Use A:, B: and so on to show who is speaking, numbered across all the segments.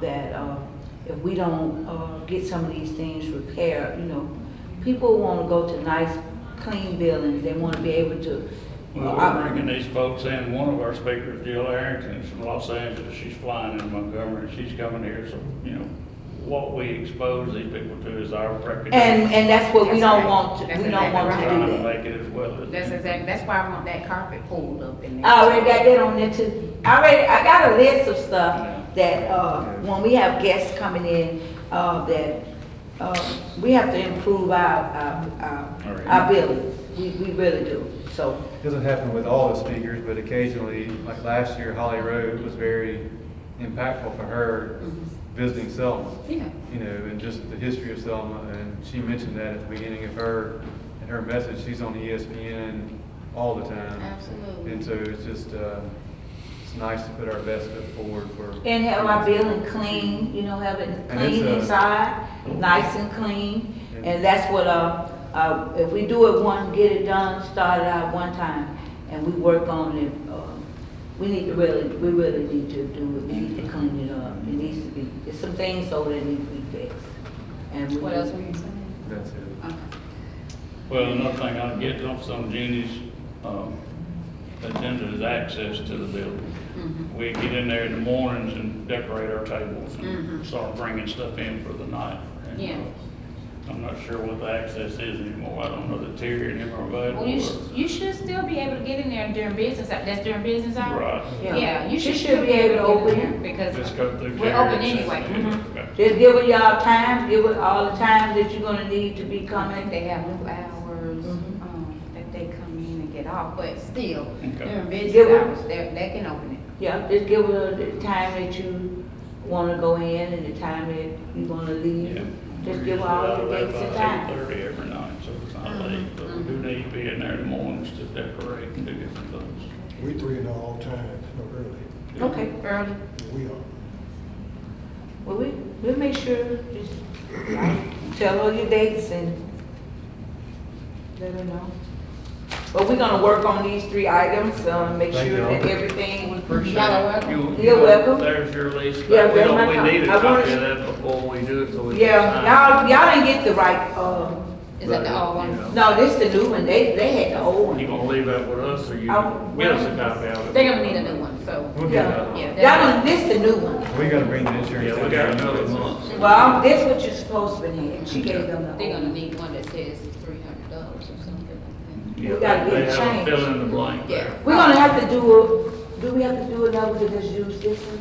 A: that uh, if we don't uh, get some of these things repaired, you know, people want to go to nice, clean buildings, they want to be able to. uh,
B: Well, we're bringing these folks in, one of our speakers, Jill Arrington, is from Los Angeles, she's flying in Montgomery, and she's coming here, so, you know, what we expose these people to is our record.
A: And, and that's what we
C: That's
A: don't
C: right.
A: want, to-
C: That's
A: we don't
C: exactly
A: want to
C: right.
A: do
B: Trying to
A: that.
B: make it as well as.
C: That's exactly, that's why I want that carpet pulled up in there.
A: I already got that on there too. I already, I got a list of stuff that, uh, when we have guests coming in, uh, that, uh, we have to improve our, our,
B: All
A: our,
B: right.
A: our buildings. We, we really do, so.
D: Doesn't happen with all the speakers, but occasionally, like last year, Holly Rowe was very impactful for her visiting Selma.
C: Yeah.
D: You know, and just the history of Selma, and she mentioned that at the beginning of her, and her message, she's on E ESPN all the time.
C: Absolutely.
D: And so it's just, uh, it's nice to put our best foot forward for.
A: And have our building clean, you know, have it
D: And it's
A: clean
D: a-
A: inside, nice and clean. And that's what, uh, uh, if we do it one, get it done, start it out one time, and we work on it, uh, we need to really, we really need to do it, we need to clean it up. It needs to be, there's some things so that need to be fixed. And we-
C: What else were you saying?
D: That's it.
C: Okay.
B: Well, another thing I'm getting off some Jeannie's, um, agenda is access to the building.
C: Mhm.
B: We get in there in the mornings and decorate our tables and
C: Mhm.
B: start bringing stuff in for the night. And, uh,
C: Yeah.
B: I'm not sure what the access is anymore, I don't know the tier anymore, but.
C: Well, you, sh- you should still be able to get in there during business, hou- that's during business hours?
B: Right.
C: Yeah, you
A: She
C: should still be able to open
A: it.
C: there because um,
B: Just go through.
C: we're
B: Jerry
C: open
B: and
C: anyway.
B: Cynthia.
C: Mhm.
B: Okay.
A: Just give it y'all time, give it all the time that you're gonna need to be
C: I think
A: coming.
C: they have new hours,
A: Mhm.
C: um, that they come in and get off, but still,
B: Okay.
C: during business
A: Give it-
C: hours, they, they can open it.
A: Yeah, just give her the time that you wanna go in and the time that you wanna
B: Yeah.
C: Mm-hmm.
A: leave. Just give her all the dates and Mm-hmm.
B: Eight
A: time.
B: thirty every night, so it's not late, but we do need to be in there in the mornings to decorate and do different things.
E: We three in all times, no early,
A: Okay,
C: Early.
E: we are.
A: well, we, we'll make sure, just tell her your dates and let her know. But we're gonna work on these three items, uh, make
D: Thank
A: sure
D: y'all.
A: that everything,
B: Appreciate
C: Y'all are
B: it. You-
A: You're
B: you-
A: welcome.
B: There's your list.
A: Yeah,
B: We
A: there's
B: don't-
A: my
B: We
A: copy.
B: need a
A: I wanted-
B: copy of that before we do it, so we. can sign it.
A: yeah, y'all, y'all didn't get the right, uh,
C: Is that the old
B: But, you
C: one?
A: no, this the new one, they, they had the old
B: know, You
A: one.
B: gonna leave that with us, or you
A: I'll-
B: give us a copy of it?
C: They're gonna need a new one, so,
D: We'll get
A: Yeah.
D: that.
C: yeah.
A: Y'all, done- this the new one.
D: We gotta bring the insurance.
B: Yeah, we got another month.
A: Well, that's what you're supposed to be had. She gave them the old
C: They're
A: one.
C: gonna need one that says three hundred dollars or something like
B: Yeah,
A: We gotta
B: they-
A: get it
B: they have a
A: changed.
B: Fill in the blank
C: Yeah.
B: there.
A: We're gonna have to do, a- do we have to do another to just use this one?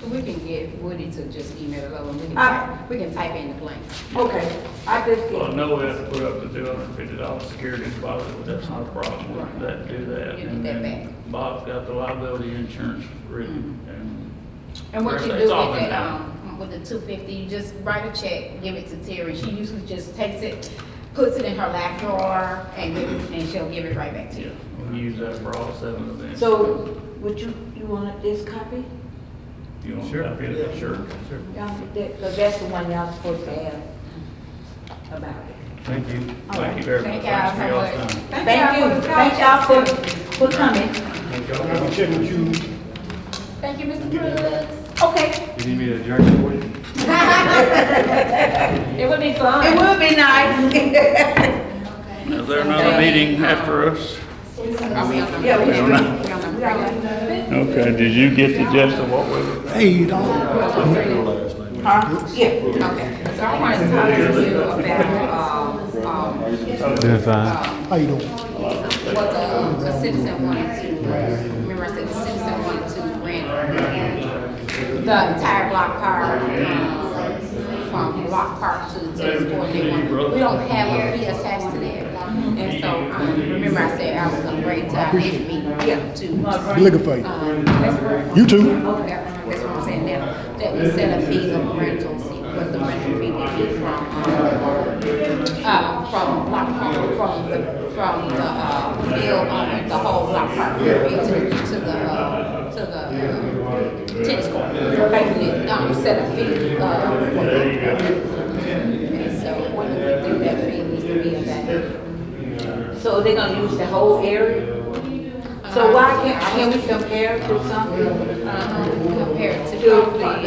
C: that. We can get Woody to just email it over, and we can
A: Uh,
C: type, we can type in the blanks.
A: Okay, I just
B: Well, I
A: get,
B: know we have to put up the two hundred and fifty dollar security deposit, but that's not a problem, we can let- do that.
C: You can
B: And
C: get that
B: then
C: back.
B: Bob's got the liability insurance written, and
C: Mm-hmm. And what you do
B: It's
C: with
B: all been
C: that,
B: done.
C: um, with the two fifty, you just write a check, give it to Terry, she usually just takes it, puts it in her lap drawer, and give it, and she'll give it right back to
B: Yeah,
C: you.
B: we use that for all seven events.
A: so, would you, you want this copy?
B: You want to
D: Sure.
B: copy of it? Sure.
D: Sure.
A: Y'all, that, cause that's the one y'all supposed to have about it.
D: Thank you.
B: Thank you very much.
C: Thank y'all
B: Thanks for y'all's
C: so much.
B: time.
A: Thank you, thank y'all for, for coming.
E: I'm gonna check with you,
C: Thank you, Mr. Brooks.
A: Okay,
D: You need me to adjourn for you?
C: It would be fun.
A: it would be nice.
B: Is there another meeting after us?
C: Are we on the-
A: Yeah, we
C: we on
A: do.
C: the- we on the-
B: Okay, did you get the gist of what we were?
E: hey, you don't, I met her last night.
A: Huh? Yeah.
C: Okay, so I wanted to talk to you about, um, um,
D: Doing fine.
E: How you doing?
C: what the, um, the citizen wanted to, remember I said the citizen wanted to rent the entire block park, um, from block park to tennis court, they want, we don't have a fee attached to that. And so, um, remember I said I was gonna bring to our next meeting to,
E: Looking for you.
C: um, that's where.
E: You too.
C: That- That's what I'm saying now, that we set a fee of rental fee, what the rental fee would be from, um, uh, from block park, from the, from the, uh, bill on the whole block park, area to, to the, uh, to the uh, tennis court. Basically, um, set a fee, uh,
B: There you go.
C: and so what do we think that fee needs to be about?
A: So they're gonna use the whole area? So why can't, can we compare to something?
C: Uh, compared to
A: To-
C: probably